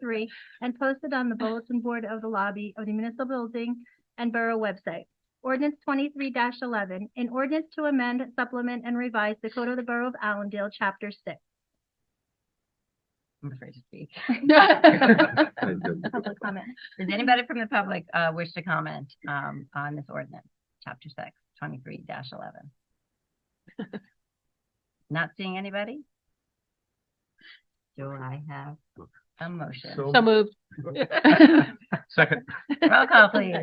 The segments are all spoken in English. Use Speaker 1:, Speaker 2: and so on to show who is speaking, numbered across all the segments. Speaker 1: three and posted on the bulletin board of the lobby of the municipal building and borough website. Ordinance twenty-three eleven, an ordinance to amend, supplement, and revise the Code of the Borough of Allendale, Chapter Six.
Speaker 2: I'm afraid to speak.
Speaker 1: Public comment.
Speaker 2: Does anybody from the public uh wish to comment um on this ordinance, chapter six, twenty-three dash eleven? Not seeing anybody? Do I have a motion?
Speaker 3: So-
Speaker 4: So moved.
Speaker 3: Second.
Speaker 2: Roll call, please.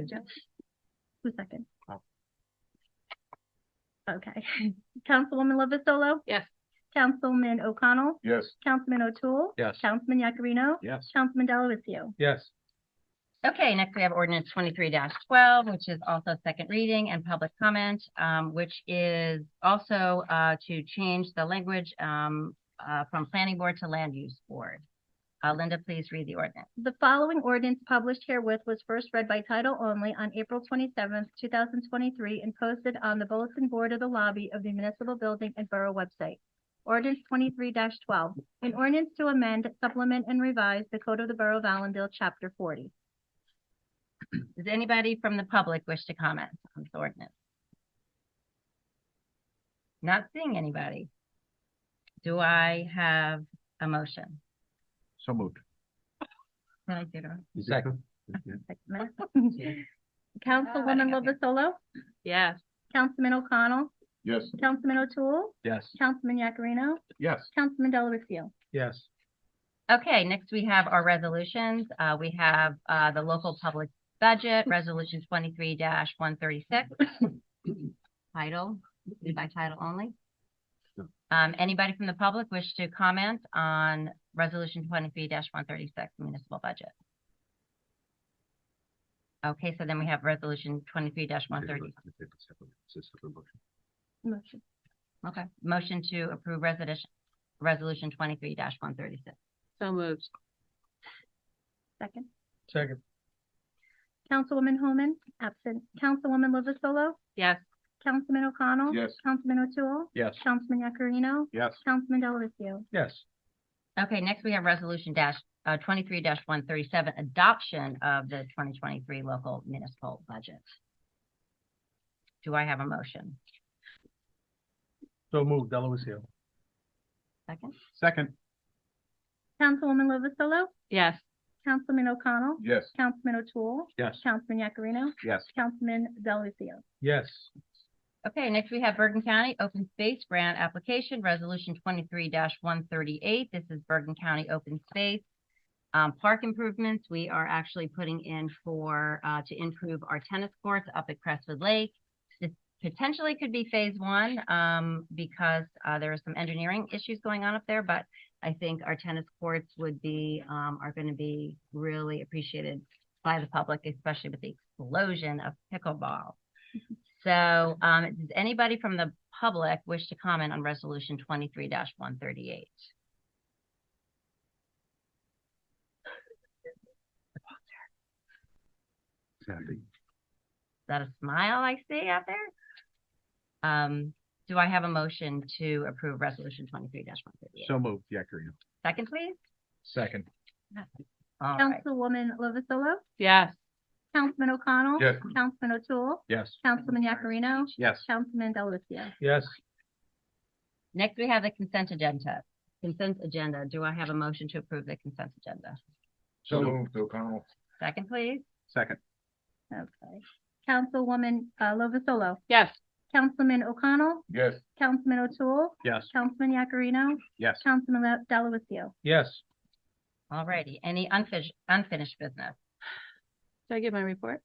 Speaker 1: Who's second?
Speaker 3: Oh.
Speaker 1: Okay. Councilwoman Lovasolo?
Speaker 4: Yes.
Speaker 1: Councilman O'Connell?
Speaker 3: Yes.
Speaker 1: Councilman O'Toole?
Speaker 3: Yes.
Speaker 1: Councilman Yakarino?
Speaker 3: Yes.
Speaker 1: Councilman Delavatio?
Speaker 3: Yes.
Speaker 2: Okay, next we have ordinance twenty-three twelve, which is also second reading and public comment, um, which is also uh to change the language um uh from planning board to land use board. Uh, Linda, please read the ordinance.
Speaker 1: The following ordinance published herewith was first read by title only on April twenty-seventh, two thousand twenty-three, and posted on the bulletin board of the lobby of the municipal building and borough website. Ordinance twenty-three twelve, an ordinance to amend, supplement, and revise the Code of the Borough of Allendale, Chapter forty.
Speaker 2: Does anybody from the public wish to comment on this ordinance? Not seeing anybody. Do I have a motion?
Speaker 3: So moved.
Speaker 2: Did I do it wrong?
Speaker 3: Second.
Speaker 1: Councilwoman
Speaker 2: Ah, okay.
Speaker 1: Lovasolo?
Speaker 4: Yes.
Speaker 1: Councilman O'Connell?
Speaker 3: Yes.
Speaker 1: Councilman O'Toole?
Speaker 3: Yes.
Speaker 1: Councilman Yakarino?
Speaker 3: Yes.
Speaker 1: Councilman Delavatio?
Speaker 3: Yes.
Speaker 2: Okay, next we have our resolutions. Uh, we have, uh, the local public budget, resolution twenty-three one thirty-six. Title, read by title only.
Speaker 3: Sure.
Speaker 2: Um, anybody from the public wish to comment on resolution twenty-three one thirty-six municipal budget? Okay, so then we have resolution twenty-three one thirty.
Speaker 1: Motion.
Speaker 2: Okay, motion to approve resolution, resolution twenty-three one thirty-six.
Speaker 4: So moved.
Speaker 1: Second.
Speaker 3: Second.
Speaker 1: Councilwoman Holman? Absent. Councilwoman Lovasolo?
Speaker 4: Yes.
Speaker 1: Councilman O'Connell?
Speaker 3: Yes.
Speaker 1: Councilman O'Toole?
Speaker 3: Yes.
Speaker 1: Councilman Yakarino?
Speaker 3: Yes.
Speaker 1: Councilman Delavatio?
Speaker 3: Yes.
Speaker 2: Okay, next we have resolution dash, uh, twenty-three one thirty-seven, adoption of the twenty twenty-three local municipal budget. Do I have a motion?
Speaker 3: So moved. Delavatio.
Speaker 2: Second?
Speaker 3: Second.
Speaker 1: Councilwoman Lovasolo?
Speaker 4: Yes.
Speaker 1: Councilman O'Connell?
Speaker 3: Yes.
Speaker 1: Councilman O'Toole?
Speaker 3: Yes.
Speaker 1: Councilman Yakarino?
Speaker 3: Yes.
Speaker 1: Councilman Delavatio?
Speaker 3: Yes.
Speaker 2: Okay, next we have Bergen County Open Space Grant Application, Resolution twenty-three one thirty-eight. This is Bergen County Open Space. Um, park improvements, we are actually putting in for, uh, to improve our tennis courts up at Crestwood Lake. This potentially could be phase one, um, because, uh, there are some engineering issues going on up there, but I think our tennis courts would be, um, are gonna be really appreciated by the public, especially with the explosion of pickleball. So, um, does anybody from the public wish to comment on resolution twenty-three one thirty-eight? Is that a smile I see out there? Um, do I have a motion to approve resolution twenty-three one thirty-eight?
Speaker 3: So moved. Yakarino.
Speaker 2: Second, please?
Speaker 3: Second.
Speaker 2: All right,
Speaker 1: Councilwoman Lovasolo?
Speaker 4: Yes.
Speaker 1: Councilman O'Connell?
Speaker 3: Yes.
Speaker 1: Councilman O'Toole?
Speaker 3: Yes.
Speaker 1: Councilman Yakarino?
Speaker 3: Yes.
Speaker 1: Councilman Delavatio?
Speaker 3: Yes.
Speaker 2: next we have the consent agenda. Consent agenda, do I have a motion to approve the consent agenda?
Speaker 3: So moved. O'Connell.
Speaker 2: Second, please?
Speaker 3: Second.
Speaker 1: Okay. Councilwoman, uh, Lovasolo?
Speaker 4: Yes.
Speaker 1: Councilman O'Connell,
Speaker 3: Yes.
Speaker 1: Councilman O'Toole,
Speaker 3: Yes.
Speaker 1: Councilman Yakarino,
Speaker 3: Yes.
Speaker 1: Councilman Le- Delavatio.
Speaker 3: Yes.
Speaker 2: All righty, any unfinished, unfinished business?
Speaker 4: Did I get my report?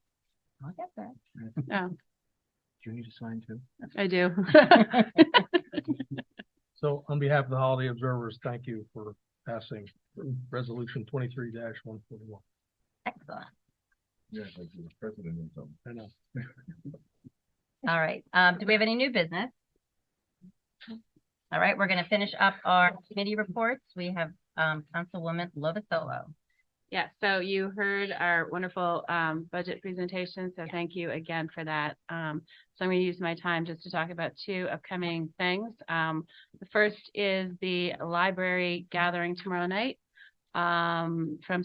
Speaker 2: I'll get that.
Speaker 4: Oh,
Speaker 3: Do you need to sign too?
Speaker 4: I do.
Speaker 5: So on behalf of the holiday observers, thank you for passing resolution twenty-three one forty-one.
Speaker 2: Excellent.
Speaker 3: Yeah, like the president or something.
Speaker 5: I know.
Speaker 2: All right, um, do we have any new business? All right, we're gonna finish up our committee reports. We have, um, Councilwoman Lovasolo.
Speaker 4: Yeah, so you heard our wonderful um budget presentation, so thank you again for that. Um, so I'm gonna use my time just to talk about two upcoming things. Um, the first is the library gathering tomorrow night. Um, from